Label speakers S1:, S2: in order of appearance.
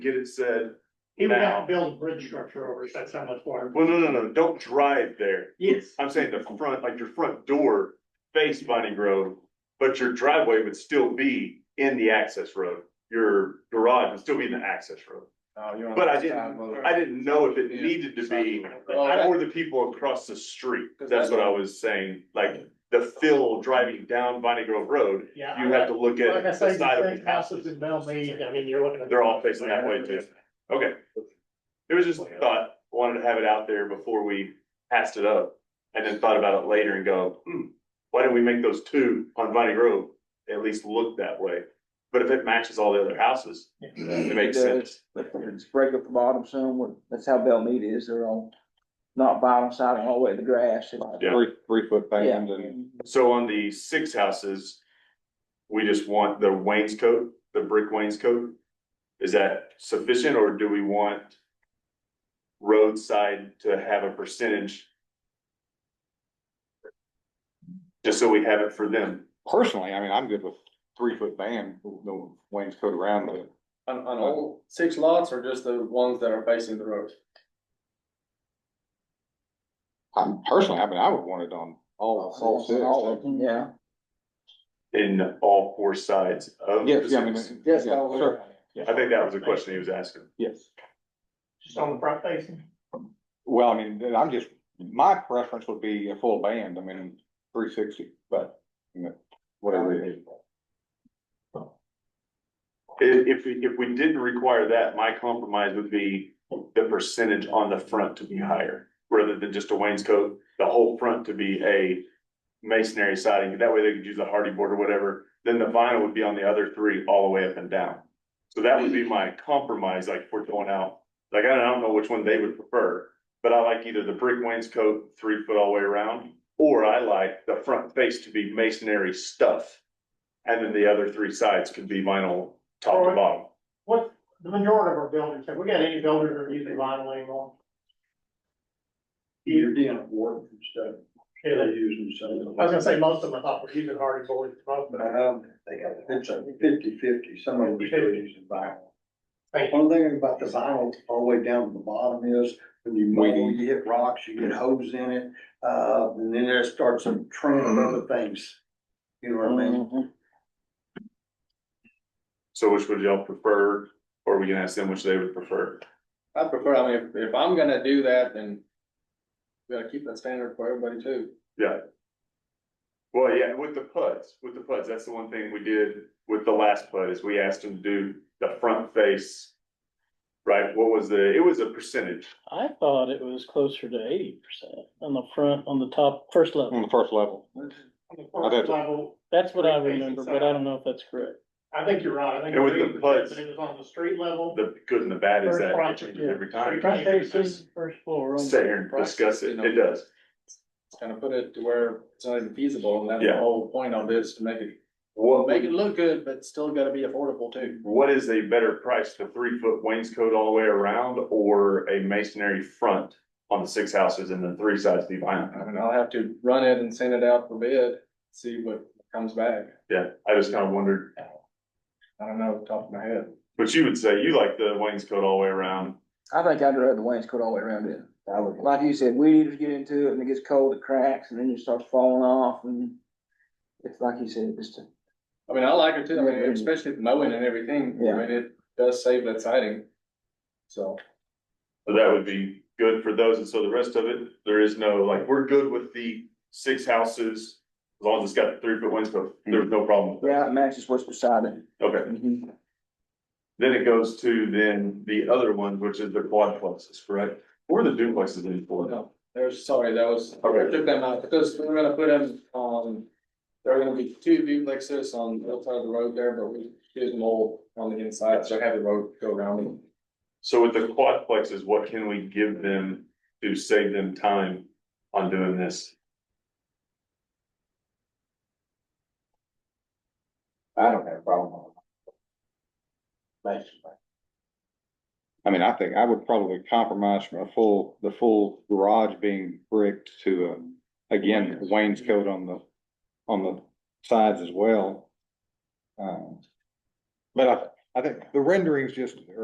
S1: get it said,
S2: He would have
S1: Now.
S2: to build a bridge structure over, it, that's how much water.
S1: well, no, no, no, don't drive there.
S2: Yes.
S1: I'm saying the front, like your front door face Vining Grove, but your driveway would still be in the access road. Your garage would still be in the access road. But I didn't, I didn't know if it needed to be, or the people across the street. That's what I was saying, like the fill driving down Vining Grove Road,
S2: Yeah.
S1: you have to look at
S2: Like I
S1: the
S2: say, the
S1: side of
S2: same
S1: the
S2: houses
S1: houses.
S2: in Bellmead, I mean, you're looking at.
S1: They're all facing that way too. Okay. It was just a thought, wanted to have it out there before we passed it up. And then thought about it later and go, hmm, why didn't we make those two on Vining Grove at least look that way? But if it matches all the other houses, it makes sense.
S3: Let's break up the bottom somewhere. That's how Belmead is. They're on, not bottom side, all the way to the grass.
S1: Yeah.
S4: Three, three foot
S3: Yeah.
S4: fans and
S1: So on the six houses, we just want the wainscot, the brick wainscot. Is that sufficient or do we want roadside to have a percentage? Just so we have it for them.
S4: personally, I mean, I'm good with three foot band, no wainscot around it.
S5: On, on all six lots or just the ones that are facing the road?
S4: I'm personally, I mean, I would want it on all, all six.
S3: All of them, yeah.
S1: in all four sides of.
S4: Yes, yeah, I mean, yeah,
S3: Just all the way
S4: sure,
S3: around.
S1: I think that was the question he was asking.
S4: yes.
S2: Just on the front facing.
S4: Well, I mean, I'm just, my preference would be a full band, I mean, three sixty, but, you know, whatever it is.
S1: I- If, if, we didn't require that, my compromise would be the percentage on the front to be higher. Rather than just a wainscot, the whole front to be a masonry siding, that way they could use a hardy board or whatever. Then the vinyl would be on the other three all the way up and down. So that would be my compromise, like if we're going out, like I don't know which one they would prefer. But I like either the brick wainscot, three foot all the way around, or I like the front face to be masonry stuff. And then the other three sides could be vinyl top to bottom.
S2: What, the majority of our buildings, have we got any buildings that are using vinyl anymore?
S6: You're down at Wharton and stuff,
S2: Yeah,
S6: they're
S2: they-
S6: using
S2: I
S6: some.
S2: was gonna say, most of them, I thought were using hardy boards, most of
S6: But
S2: them.
S6: I don't think, it's a fifty fifty, some of them still using vinyl.
S2: Thank
S6: One thing about the vinyl all the way down to the bottom is when you mow, you hit rocks, you get hose in it, uh, and then there starts a trend of other things. You know what I mean?
S3: Mhm.
S1: So which would y'all prefer, or we can ask them which they would prefer?
S5: I prefer, I mean, if, if I'm gonna do that, then we gotta keep that standard for everybody too.
S1: Well, yeah, with the putts, with the putts, that's the one thing we did with the last putt is we asked them to do the front face. Right, what was the, it was a percentage,
S7: I thought it was closer to eighty percent on the front, on the top, first
S4: On
S7: level.
S4: the first level,
S2: On the
S4: I bet-
S2: first level,
S7: That's what I
S2: Three facing
S7: remember, but I don't know if that's correct.
S2: I think you're right, I think.
S1: And with
S2: it's
S1: the
S2: 80%,
S1: putts-
S2: But it was on the street level.
S1: the good and the bad is that it
S2: First
S1: changes
S7: yeah.
S1: every time.
S7: Front
S1: Just
S7: facing, first floor. only.
S1: Sit here and discuss it, it does,
S5: It's gonna put it to where it's not even feasible and that's
S1: Yeah.
S5: the whole point of this, to make it,
S1: what,
S5: make it look good, but still gotta be affordable too.
S1: what is a better price, the three foot wainscot all the way around, or a masonry front? On the six houses and then three sides to the vinyl,
S5: I mean, I'll have to run it and send it out for bid, see what comes back.
S1: yeah, I just kind of wondered.
S5: I don't know, top of my head.
S1: But you would say you like the wainscot all the way around.
S3: I think I'd rather the wainscot all the way around it. Like you said, we need to get into it and it gets cold, it cracks and then it starts falling off and it's like you said, just a
S5: I mean, I like it too, I mean, especially the mowing and everything, I
S3: Yeah.
S5: mean, it does save that siding. So.
S1: So that would be good for those. And so the rest of it, there is no, like, we're good with the six houses. As long as it's got the three foot wainscot, there's no problem. with that.
S3: Yeah, it matches what's beside it.
S1: Okay.
S3: Mhm.
S1: Then it goes to then the other ones, which is the quadplexes, correct? Or the duplexes in Florida.
S5: No, there's, sorry, that was,
S1: Okay.
S5: I took them out, because we we're gonna put them, um, there are gonna be two duplexes on the outside of the road there, but we did them all on the inside, so have the road go around them.
S1: So with the quadplexes, what can we give them to save them time on doing this?
S4: I don't have a problem.
S3: Basically.
S4: I mean, I think I would probably compromise from a full, the full garage being bricked to, um, again, wainscot on the, on the sides as well. Um, But I, I think the renderings just